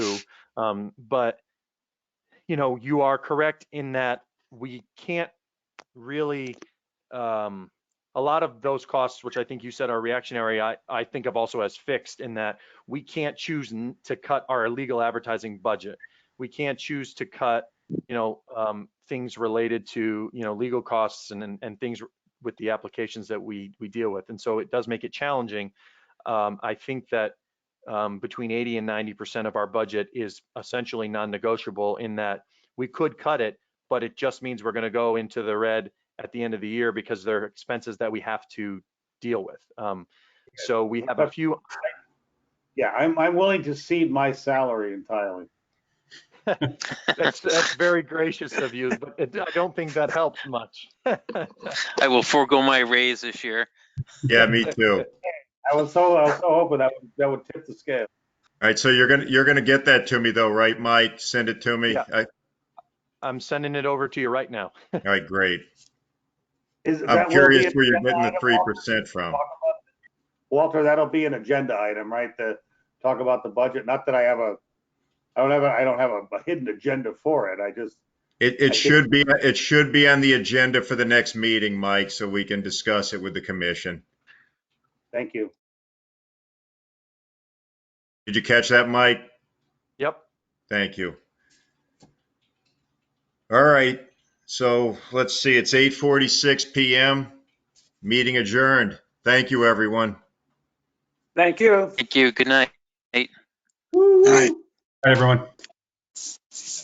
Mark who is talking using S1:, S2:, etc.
S1: Um, but you know, you are correct in that we can't really um, a lot of those costs, which I think you said are reactionary, I, I think of also as fixed in that we can't choose n- to cut our illegal advertising budget. We can't choose to cut, you know, um, things related to, you know, legal costs and, and, and things with the applications that we, we deal with. And so it does make it challenging. Um, I think that um, between 80 and 90% of our budget is essentially non-negotiable in that we could cut it, but it just means we're going to go into the red at the end of the year because they're expenses that we have to deal with. Um, so we have a few,
S2: Yeah, I'm, I'm willing to cede my salary entirely.
S1: that's, that's very gracious of you, but it, I don't think that helps much.
S3: I will forego my raise this year.
S4: Yeah, me too. All
S2: I was so, I was so hoping that would, that would tip the scale.
S4: right, so you're gonna, you're gonna get that to me though, right, Mike? Send it to me?
S1: Yeah.
S4: I-
S1: I'm sending it over to you right now.
S4: All right, great.
S2: Is- that
S4: I'm
S2: will be
S4: curious
S2: an
S4: where you're
S2: agenda
S4: getting the
S2: item,
S4: three percent from.
S2: Walter, that'll be an agenda item, right? To talk about the budget. Not that I have a, I don't have a, I don't have a a hidden agenda for it. I just,
S4: It,
S2: I
S4: it should
S2: think-
S4: be, it should be on the agenda for the next meeting, Mike, so we can discuss it with the commission.
S2: thank you.
S4: Did you catch that, Mike?
S1: Yep.
S4: Thank you. All right, so let's see, it's 8:46 PM. Meeting adjourned. Thank you, everyone.
S2: Thank you.
S3: Thank you. Good night.
S5: Hi, everyone.